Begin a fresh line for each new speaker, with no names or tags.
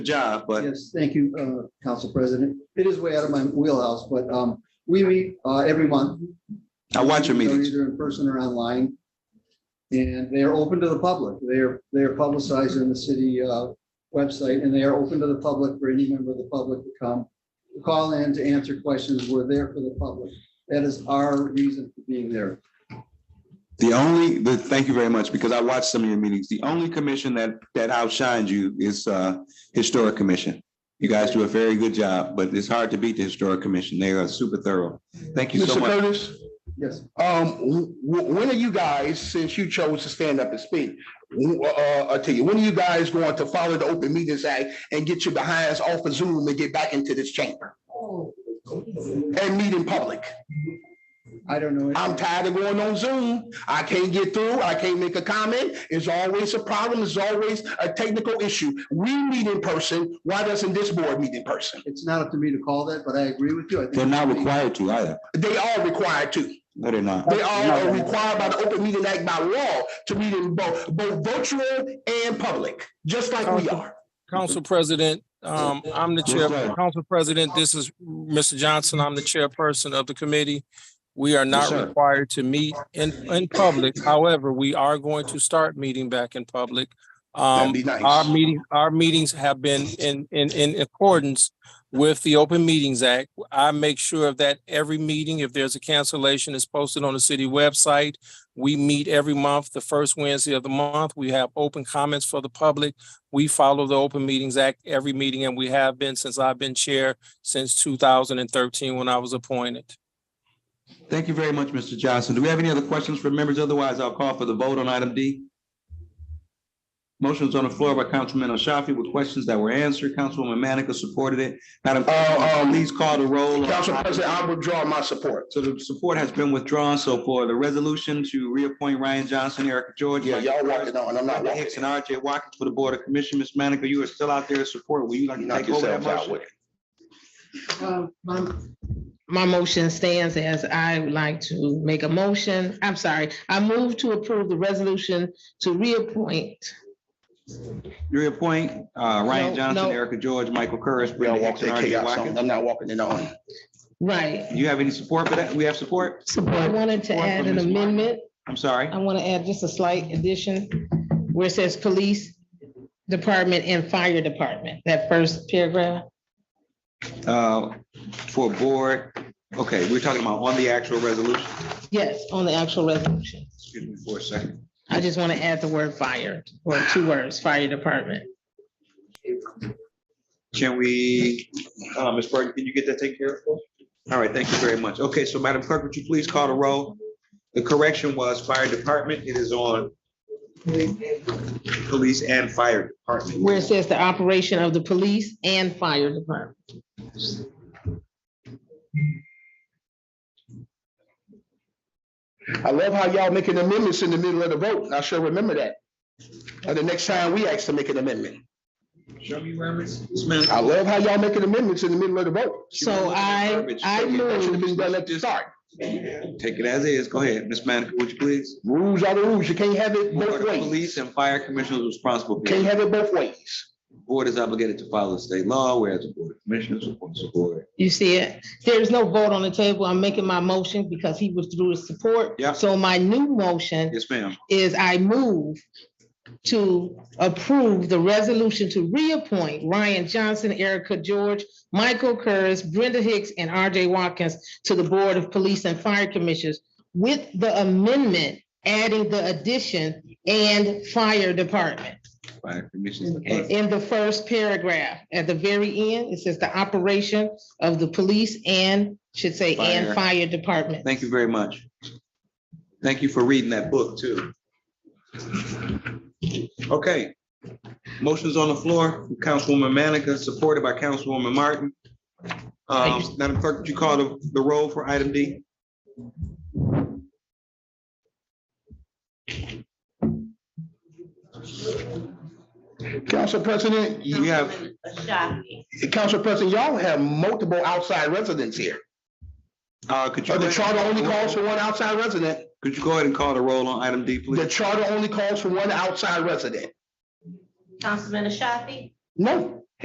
job, but
Yes, thank you, uh, Council President. It is way out of my wheelhouse, but um, we meet uh, every month.
I watch your
They're
meetings.
Either in person or online. And they are open to the public. They're, they're publicized in the city uh, website, and they are open to the public for any member of the public to come, to call in to answer questions. We're there for the public. That is our reason for being there.
The only, the, thank you very much, because I watched some of your meetings. The only commission that, that outshines you is, uh, Historic Commission. You guys do a very good job, but it's hard to beat the Historic Commission. They are super thorough. Thank you so
Mr.
much.
Curtis,
Yes,
um, w- w- when are you guys, since you chose to stand up and speak, w- uh, I tell you, when are you guys going to follow the Open Meetings Act and get your behinds off of Zoom and get back into this chamber and meet in public?
I don't know.
I'm tired of going on Zoom. I can't get through. I can't make a comment. It's always a problem. It's always a technical issue. We meet in person. Why doesn't this board meet in person?
It's not up to me to call that, but I agree with you. I think-
They're not required to either.
They are required to.
No, they're not.
They are uh, required by the Open Meeting Act by law to meet in both, both virtual and public, just like we are.
Council President, um, I'm the chair,
Yes, sir.
Council President, this is Mr. Johnson, I'm the chairperson of the committee. We are
Yes,
not
sir.
required to meet in, in public, however, we are going to start meeting back in public.
That'd
Um,
be
our
nice.
meeting, our meetings have been in, in, in accordance with the Open Meetings Act. I make sure that every meeting, if there's a cancellation, is posted on the city website. We meet every month, the first Wednesday of the month. We have open comments for the public. We follow the Open Meetings Act every meeting, and we have been since I've been chair since two thousand and thirteen when I was appointed.
Thank you very much, Mr. Johnson. Do we have any other questions from members? Otherwise, I'll call for the vote on item D. Motion's on the floor by Councilman Ashafi with questions that were answered. Councilwoman Manica supported it. Madam,
Uh,
uh,
um,
please call the roll. on
Council
item
President, I withdraw my support.
So the support has been withdrawn. So for the resolution to reappoint Ryan Johnson, Erica George,
Yeah,
Mike
y'all walking on, I'm not
Brenda
walking.
Hicks, and RJ Watkins for the Board of Commissioners. Ms. Manica, you are still out there as support. Will you like to
Knock
take over that
yourselves out
motion?
with it.
Um, I'm-
My motion stands as I would like to make a motion. I'm sorry, I move to approve the resolution to reappoint.
Reappoint uh, Ryan
No,
Johnson,
no.
Erica George, Michael Curris,
Y'all
Brenda Hicks,
walking
and
in
RJ
chaos. I'm
Watkins.
I'm not walking it on.
Right.
Do you have any support for that? We have support?
I wanted to
Support
add
from
an
Ms. Martin.
amendment.
I'm sorry.
I want to add just a slight addition where it says police department and fire department, that first paragraph.
Uh, For board, okay, we're talking about on the actual resolution.
Yes, on the actual resolution.
Excuse me for a second.
I just want to add the word fire, or two words, fire department.
Can we, uh, Ms. Burton, can you get that taken care of? for us? All right, thank you very much. Okay, so Madam Clerk, would you please call the roll? The correction was fire department. It is on police and fire department.
Where it says the operation of the police and fire department.
I love how y'all making amendments in the middle of the vote. and I sure remember that. And the next time we ask to make an amendment.
Show me where Ms. Smith.
I love how y'all making amendments in the middle of the vote.
So I, I
That should
move
have been done at the start.
Take it as is. Go ahead, Ms. Manica, would you please?
Rules are the rules. You can't have it
Are
both
the
ways.
Police and fire commissioners responsible. for
Can't have it both ways.
Board is obligated to follow state law, whereas the board of commissioners supports the board.
You see it? There's no vote on the table. I'm making my motion because he withdrew his support.
Yeah.
So my new motion
Yes, ma'am.
is I move to approve the resolution to reappoint Ryan Johnson, Erica George, Michael Curris, Brenda Hicks, and RJ Watkins to the Board of Police and Fire Commissioners with the amendment adding the addition and fire department.
Fire commissioners. and
In the first paragraph, at the very end, it says the operation of the police and, should say, and
Fire.
fire department.
Thank you very much. Thank you for reading that book too. Okay. Motion's on the floor, from Councilwoman Manica, supported by Councilwoman Martin. Um, Madam Clerk, would you call the, the roll for item D?
Council President, you-
We have,
Ashafi.
Council President, y'all have multiple outside residents here.
uh, could you,
Uh,
go
The charter only calls
ahead-
for one outside resident.
could you go ahead and call the roll on item D,
The
please?
charter only calls for one outside resident.
Councilman Ashafi,
No,